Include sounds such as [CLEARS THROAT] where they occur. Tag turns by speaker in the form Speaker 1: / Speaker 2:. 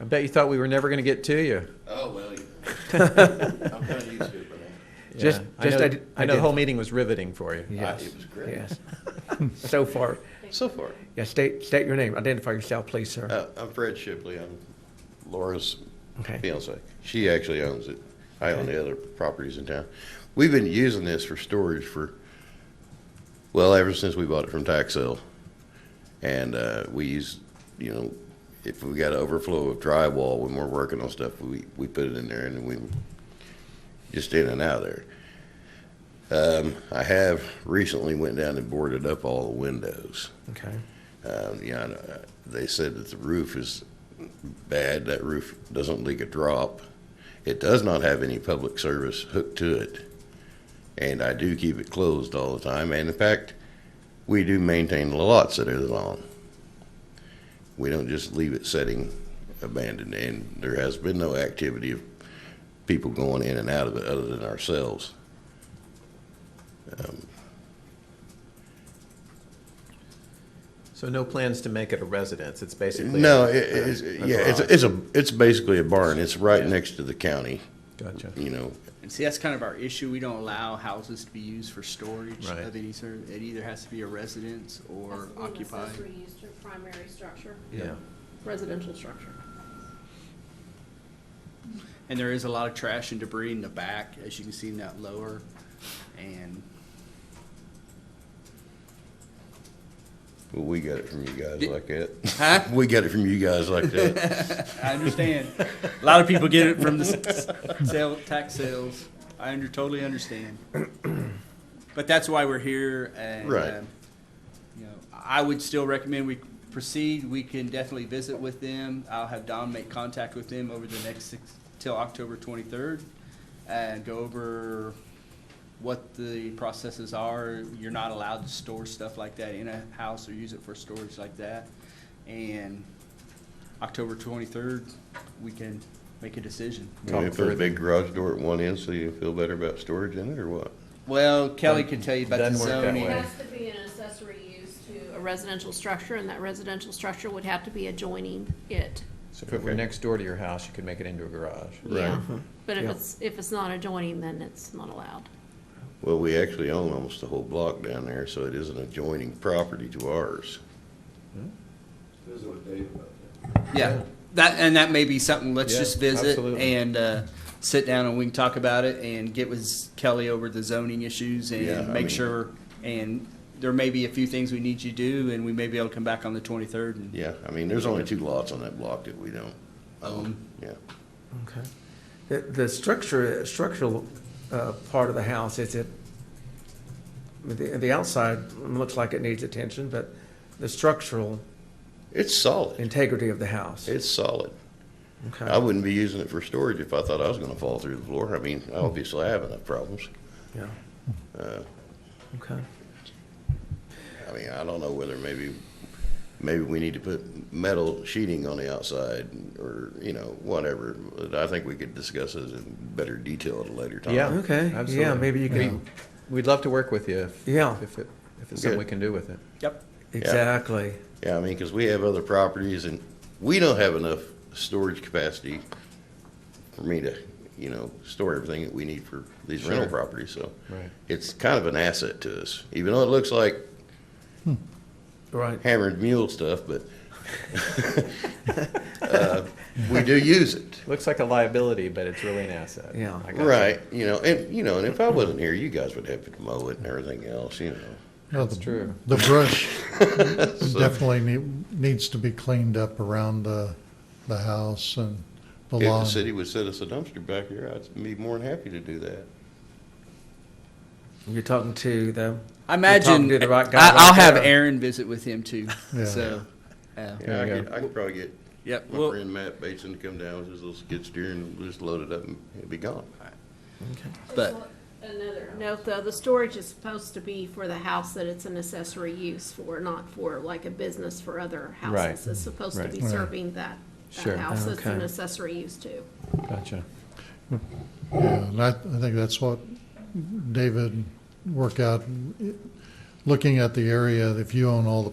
Speaker 1: bet you thought we were never going to get to you.
Speaker 2: Oh, well, yeah. I'm kind of used to it, but
Speaker 1: Just,
Speaker 3: Yeah, I
Speaker 1: just
Speaker 3: know-
Speaker 1: I, know,
Speaker 3: I
Speaker 1: the
Speaker 3: did.
Speaker 1: whole meeting was riveting for you.
Speaker 2: I-
Speaker 3: Yes.
Speaker 2: it was great.
Speaker 3: [LAUGHS] Yes. So far.
Speaker 2: so far.
Speaker 3: Yeah, state, state your name. Identify yourself, please, sir.
Speaker 2: Uh, I'm Fred Shipley. I'm Laura's
Speaker 3: Okay.
Speaker 2: fiance. She actually owns it. I own the other properties in town. We've been using this for storage for, well, ever since we bought it from tax sale. And uh, we use, you know, if we got an overflow of drywall when we're working on stuff, we, we put it in there and we just in and out of there. Um, I have recently went down and boarded up all the windows.
Speaker 3: Okay.
Speaker 2: Um, you know, uh, they said that the roof is bad. That roof doesn't leak a drop. It does not have any public service hooked to it. And I do keep it closed all the time. And in fact, we do maintain the lots that are long. We don't just leave it sitting abandoned. And there has been no activity of people going in and out of it other than ourselves.
Speaker 1: So no plans to make it a residence. It's basically
Speaker 2: No,
Speaker 1: a-
Speaker 2: it, it's,
Speaker 1: a- a
Speaker 2: yeah, it's,
Speaker 1: garage.
Speaker 2: it's a, it's basically a barn. It's right next to the county.
Speaker 1: Gotcha.
Speaker 2: You know,
Speaker 4: And see, that's kind of our issue. We don't allow houses to be used for storage
Speaker 1: Right.
Speaker 4: of any sort. It either has to be a residence or
Speaker 5: Has to be an
Speaker 4: occupied.
Speaker 5: Accessory use to a primary structure,
Speaker 1: Yeah.
Speaker 5: residential structure.
Speaker 4: And there is a lot of trash and debris in the back, as you can see in that lower. And
Speaker 2: Well, we got it from you guys
Speaker 4: Did-
Speaker 2: like that.
Speaker 4: Huh?
Speaker 2: [LAUGHS] We got it from you guys like
Speaker 4: [LAUGHS]
Speaker 2: that.
Speaker 4: I understand. a lot of people get it from the s- s- sale, tax sales. I under, totally understand. [CLEARS THROAT] But that's why we're here and,
Speaker 2: Right.
Speaker 4: um, you know, I would still recommend we proceed. We can definitely visit with them. I'll have Don make contact with them over the next six, till October twenty-third and go over what the processes are. You're not allowed to store stuff like that in a house or use it for storage like that. And October twenty-third, we can make a decision.
Speaker 2: Can we put a big garage door at one end so you feel better about storage in it or what?
Speaker 4: Well, Kelly can tell you about the
Speaker 1: Doesn't work that
Speaker 4: zoning.
Speaker 5: It
Speaker 1: way.
Speaker 5: has to be an accessory use to a residential structure, and that residential structure would have to be adjoining it.
Speaker 1: So if it were
Speaker 2: Okay.
Speaker 1: next door to your house, you could make it into a garage.
Speaker 5: Yeah.
Speaker 1: Uh-huh.
Speaker 5: But if
Speaker 3: Yeah.
Speaker 5: it's, if it's not adjoining, then it's not allowed.
Speaker 2: Well, we actually own almost the whole block down there, so it is an adjoining property to ours.
Speaker 4: Yeah, that, and that may be something, let's
Speaker 1: Yeah,
Speaker 4: just visit
Speaker 1: absolutely.
Speaker 4: and, uh, sit down and we can talk about it and get with Kelly over the zoning issues
Speaker 2: Yeah, I
Speaker 4: and
Speaker 2: mean-
Speaker 4: make sure. And there may be a few things we need you to do and we may be able to come back on the twenty-third and
Speaker 2: Yeah, I mean, there's only two lots on that block that we don't own.
Speaker 4: own.
Speaker 2: Yeah.
Speaker 3: Okay. The, the structure, structural, uh, part of the house, is it, the, the outside looks like it needs attention, but the structural
Speaker 2: It's solid.
Speaker 3: integrity of the house.
Speaker 2: It's solid. I
Speaker 3: Okay.
Speaker 2: wouldn't be using it for storage if I thought I was gonna fall through the floor. I mean, I obviously have enough problems.
Speaker 3: Yeah.
Speaker 2: Uh,
Speaker 3: Okay.
Speaker 2: I mean, I don't know whether maybe, maybe we need to put metal sheeting on the outside or, you know, whatever. But I think we could discuss this in better detail at a later time.
Speaker 1: Yeah.
Speaker 3: Okay. Yeah,
Speaker 1: absolutely.
Speaker 3: maybe you
Speaker 1: We-
Speaker 3: can,
Speaker 1: We'd love to work with you if,
Speaker 3: Yeah.
Speaker 1: if, it, if it's something we
Speaker 2: Good.
Speaker 1: can do with it.
Speaker 4: Yep.
Speaker 3: exactly.
Speaker 2: Yeah, I mean, because we have other properties and we don't have enough storage capacity for me to, you know, store everything that we need for these rental
Speaker 1: Sure.
Speaker 2: properties, so.
Speaker 1: Right.
Speaker 2: It's kind of an asset to us, even though it looks like
Speaker 3: Right.
Speaker 2: hammered mule stuff, but [LAUGHS] uh, we do use it.
Speaker 1: Looks like a liability, but it's really an asset.
Speaker 3: Yeah.
Speaker 1: I got you.
Speaker 2: Right, you know, and, you know, and if I wasn't here, you guys would have to mow it and everything else, you know.
Speaker 6: Well,
Speaker 1: That's
Speaker 6: the-
Speaker 1: true.
Speaker 6: The brush
Speaker 2: [LAUGHS] So-
Speaker 6: definitely need, needs to be cleaned up around the, the house and the
Speaker 2: If the
Speaker 6: lawn.
Speaker 2: city would set us a dumpster back here, I'd be more than happy to do that.
Speaker 3: You're talking to the,
Speaker 4: I
Speaker 3: talking
Speaker 4: imagine,
Speaker 3: to the right guy
Speaker 4: I,
Speaker 3: right
Speaker 4: I'll have
Speaker 3: there.
Speaker 4: Aaron visit with him too,
Speaker 6: Yeah.
Speaker 4: so, uh,
Speaker 2: Yeah, I
Speaker 1: There you
Speaker 2: could, I could probably get
Speaker 4: yep.
Speaker 2: my
Speaker 4: Well,
Speaker 2: friend Matt Bateson to come down with his little skid steer and just load it up and it'd be gone.
Speaker 4: But-
Speaker 5: Another note, though, the storage is supposed to be for the house that it's an accessory use for, not for like a business for other
Speaker 1: Right.
Speaker 5: houses. It's supposed to
Speaker 1: Right.
Speaker 5: be
Speaker 6: Right.
Speaker 5: serving that,
Speaker 1: Sure.
Speaker 5: that house that's an
Speaker 3: Okay.
Speaker 5: accessory use to.
Speaker 1: Gotcha.
Speaker 6: Yeah, and I, I think that's what David worked out. Looking at the area, if you own all the